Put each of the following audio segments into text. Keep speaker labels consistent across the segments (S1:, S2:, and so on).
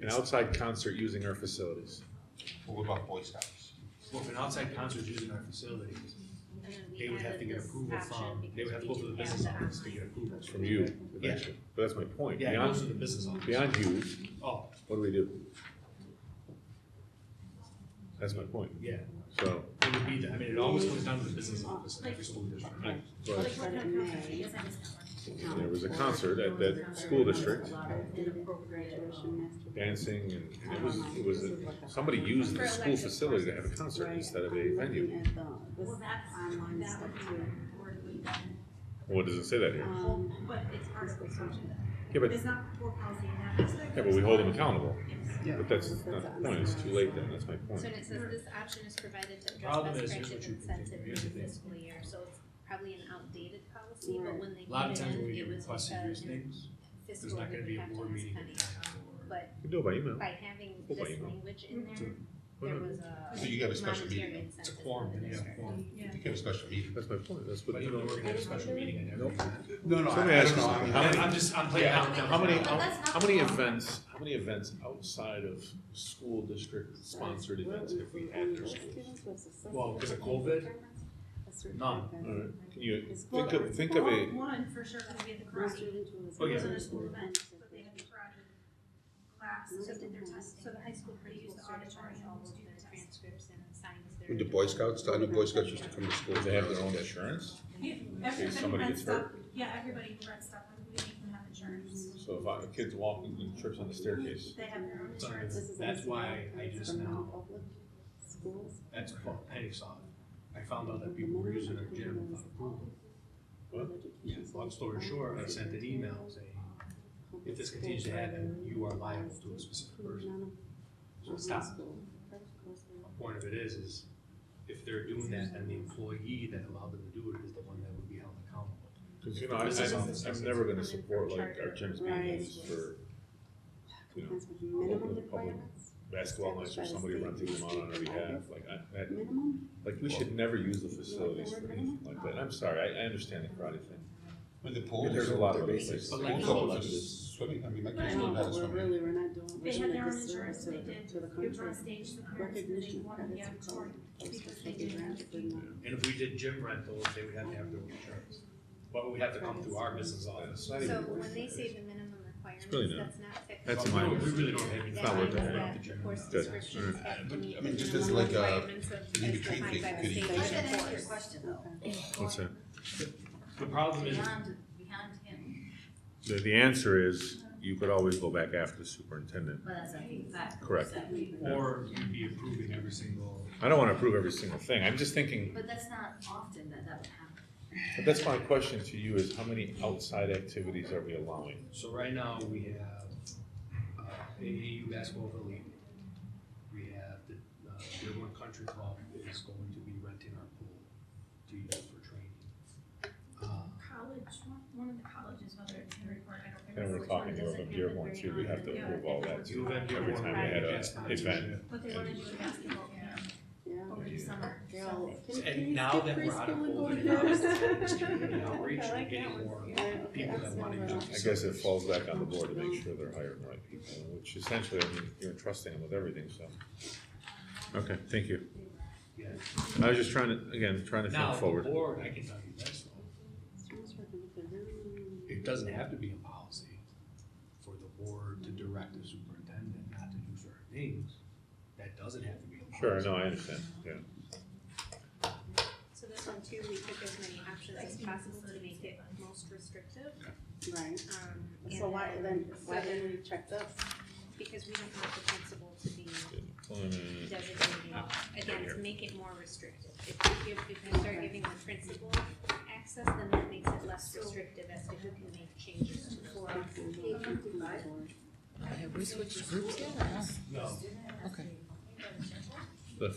S1: an outside concert using our facilities.
S2: What about Boy Scouts?
S3: Well, if an outside concert is using our facilities, they would have to get approval from, they would have to go to the business office to get approval.
S1: From you, eventually. But that's my point.
S3: Yeah, it goes to
S1: Beyond,
S3: the business office.
S1: beyond you,
S3: Oh,
S1: what do we do? That's my point.
S3: yeah,
S1: So,
S3: it would be, the- I mean, it always comes down to the business office in every school district.
S1: I,
S4: Well,
S1: but
S4: like, what kind of concert is that?
S1: if there was a concert at that school district, dancing and it was, it was, a- somebody used the school facility to have a concert instead of a venue.
S4: Well, that's, that would be where it would be done,
S1: What does it say that here?
S4: but it's part of the solution.
S1: Yeah, but,
S4: It's not for policy and that aspect.
S1: yeah, but we hold them accountable.
S4: Yes.
S1: But that's not the point. It's too late then. That's my point.
S5: So and it says this option is provided to
S3: Problem
S5: address
S3: is,
S5: best
S3: here's what you can
S5: practice
S3: do.
S5: incentive
S3: Here's
S5: for
S3: the
S5: the
S3: thing.
S5: fiscal year, so it's probably an outdated policy, but
S4: Right.
S5: when they
S3: A lot of
S5: put it
S3: times when
S5: in,
S3: we
S5: it
S3: get
S5: was
S3: requests to
S5: uh,
S3: use
S5: in
S3: names,
S5: fiscal,
S3: there's not gonna
S5: we
S3: be a
S5: have to
S3: board
S5: ask
S3: meeting.
S5: Penny.
S3: at the time or-
S5: But
S1: We do it by email.
S5: by having
S1: Oh. Well,
S5: this
S1: you know.
S5: language in there,
S3: So-
S1: Why
S5: there
S1: not?
S5: was a.
S2: So you got a special
S5: monetary
S2: meeting.
S3: It's a
S5: incentive
S3: quorum,
S5: for the
S3: then you have a
S5: district.
S3: quorum.
S4: Yeah.
S2: You get a special meeting.
S1: That's my point. That's what.
S3: But even though we're gonna have a special meeting, I never.
S2: No, no,
S1: So let me ask you
S2: know.
S1: something.
S2: I mean,
S1: many-
S3: I'm just, I'm playing out.
S1: How many,
S4: But that's not
S1: how many
S4: the law.
S1: events, how many events outside of school district sponsored events have we had in our schools?
S3: Well, because of COVID, none.
S1: Alright, Can you
S4: Well,
S1: think of, think of a,
S4: well, One for sure, because we had the karate,
S3: Oh,
S4: it
S3: yeah.
S4: wasn't a school event, but they had the karate class, so they did their testing.
S5: So the high school
S4: They
S5: principals
S4: used the
S5: started
S4: auditorium
S5: all
S4: to
S5: of
S4: do
S5: their
S4: the testing.
S5: transcripts and signs their.
S2: With the Boy Scouts, I know Boy Scouts used to come to school.
S1: do they have their own insurance?
S4: Yeah,
S1: case
S4: everybody
S1: somebody
S4: read
S1: gets hurt.
S4: stuff, yeah, everybody read stuff, like, we make them have insurance,
S1: So if I, a kid's walking and trips on the staircase,
S4: they have their own
S3: So
S4: insurance.
S3: that's why I just now, that's what Penny saw. I found out that people were using our gym without approval. Yeah, long story short, I sent an email saying, if this continues to happen, you are liable to a specific person. So stop. The point of it is, is if they're doing that, then the employee that allowed them to do it is the one that would be held accountable.
S1: cause you know, I, I, I'm never gonna support like our gyms being used for, you know, open to the public basketball nights or somebody renting them out on our behalf, like I, that,
S6: Minimum?
S1: like we should never use the facilities for anything like that. I'm sorry, I, I understand the karate thing.
S2: With the pools.
S1: There's a lot of
S2: the
S1: places.
S2: bases,
S3: But
S2: Pools
S3: like-
S2: open for swimming, I mean, my kids
S6: No,
S2: don't have
S6: but we're
S2: swimming.
S6: really, we're not doing, we're
S4: They had
S6: doing
S4: their
S6: a
S4: own insurance,
S6: disservice to
S4: they
S6: the,
S4: did,
S6: to the
S4: it was on
S6: country.
S4: stage, the parents, and they
S6: Recognition
S4: wanted the
S6: credits we call
S4: auditorium,
S6: it.
S4: because
S6: Those
S4: they
S6: take
S4: did
S6: advantage of them.
S3: And if we did gym rentals, they would have to have their own insurance. But we'd have to come through our business office.
S1: not
S5: So
S1: even
S5: when they say the minimum requirements,
S1: really not-
S5: that's not fixed.
S1: that's
S5: in
S1: minor.
S5: the
S1: We
S3: really don't have-
S5: statute.
S1: it's not worth
S5: That
S1: it.
S5: means that
S3: Good.
S5: the course
S1: Good.
S5: descriptions have to
S2: But,
S5: meet
S2: I mean, just
S5: the
S2: as
S5: minimum
S2: like a-
S5: requirements of-
S2: an
S5: as
S2: in-between
S5: defined
S2: thing
S5: by the
S2: could
S5: state
S2: even-
S4: Does that
S5: and
S4: answer your
S5: course.
S4: question though?
S1: What's that?
S3: The problem is,
S4: Beyond, beyond him,
S1: The, the answer is, you could always go back after the superintendent.
S4: but that's exactly.
S1: Correct.
S3: or you'd be approving every single,
S1: I don't wanna approve every single thing, I'm just thinking,
S4: But that's not often that that would happen.
S1: but that's my question to you is, how many outside activities are we allowing?
S3: so right now, we have, uh, AAU basketball for league. We have the, uh, Dearborn Country Club is going to be renting our pool to use for training. Uh,
S4: College, one, one of the colleges, whether it's Henry Ford, I don't
S1: And
S4: remember
S1: we're
S4: which one,
S1: talking
S4: doesn't
S1: urban
S4: have it
S1: Dearborn
S4: very
S1: too, we have to
S4: often.
S1: approve all that
S3: You
S1: too,
S3: have
S1: every
S3: Dearborn
S1: time we had
S3: Pride,
S1: a
S3: that's
S1: event.
S3: sponsorship.
S4: But they wanna do a basketball camp
S6: Yeah.
S4: over the summer.
S6: Girl, can- can
S3: And
S6: you
S3: now
S6: get
S3: that we're out of
S6: preschool and go
S3: COVID,
S6: to
S3: now it's
S6: this?
S3: it's community outreach,
S6: I
S3: we're
S6: like
S3: getting
S6: that
S3: more
S6: Yeah, okay,
S3: people that
S6: that's
S3: wanna
S6: not
S3: do.
S6: right.
S1: I guess it falls back on the board to make sure they're hiring the right people, which essentially, I mean, you're entrusting them with everything, so. Okay, thank you,
S3: Yeah.
S1: I was just trying to, again, trying to
S3: Now,
S1: think
S3: the
S1: forward.
S3: board, I can tell you this, though, it doesn't have to be a policy for the board to direct the superintendent not to do certain things. That doesn't have to be a
S1: Sure,
S3: policy.
S1: no, I understand, yeah.
S5: So this one too, we took as many options as possible to make it most restrictive.
S6: Right,
S5: Um,
S6: so
S5: and
S6: why, then, why didn't we check this?
S5: Because we don't want the principal to be
S1: Employment,
S5: designated, again, to make it more restrictive. If you give, if you start giving the principal access, then that makes it less restrictive as to who can make changes to the law.
S7: Have we switched groups yet? or not?
S3: No,
S7: Okay.
S1: the-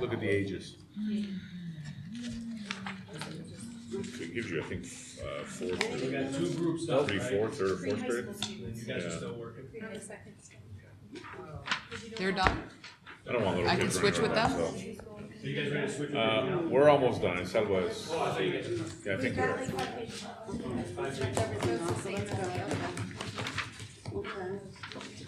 S1: Look at the ages. It gives you, I think, uh, fourth,
S3: we
S1: grade,
S3: got two groups up,
S1: three,
S3: right?
S1: fourth, third, or fourth
S5: Pre-high
S1: grade.
S3: And
S5: school
S3: then you
S5: students.
S3: guys are
S1: Yeah.
S3: still working.
S5: Pre-high second school.
S7: They're done?
S1: I don't want little
S7: I can
S1: kids
S7: switch
S1: running
S7: with
S1: around,
S7: them?
S3: So you guys ready to switch?
S1: so. Uh, we're almost done, I said was,
S3: Oh, I thought you guys.
S1: yeah, I think we're,
S3: Five, three.
S6: Everything else, so let's go. Okay.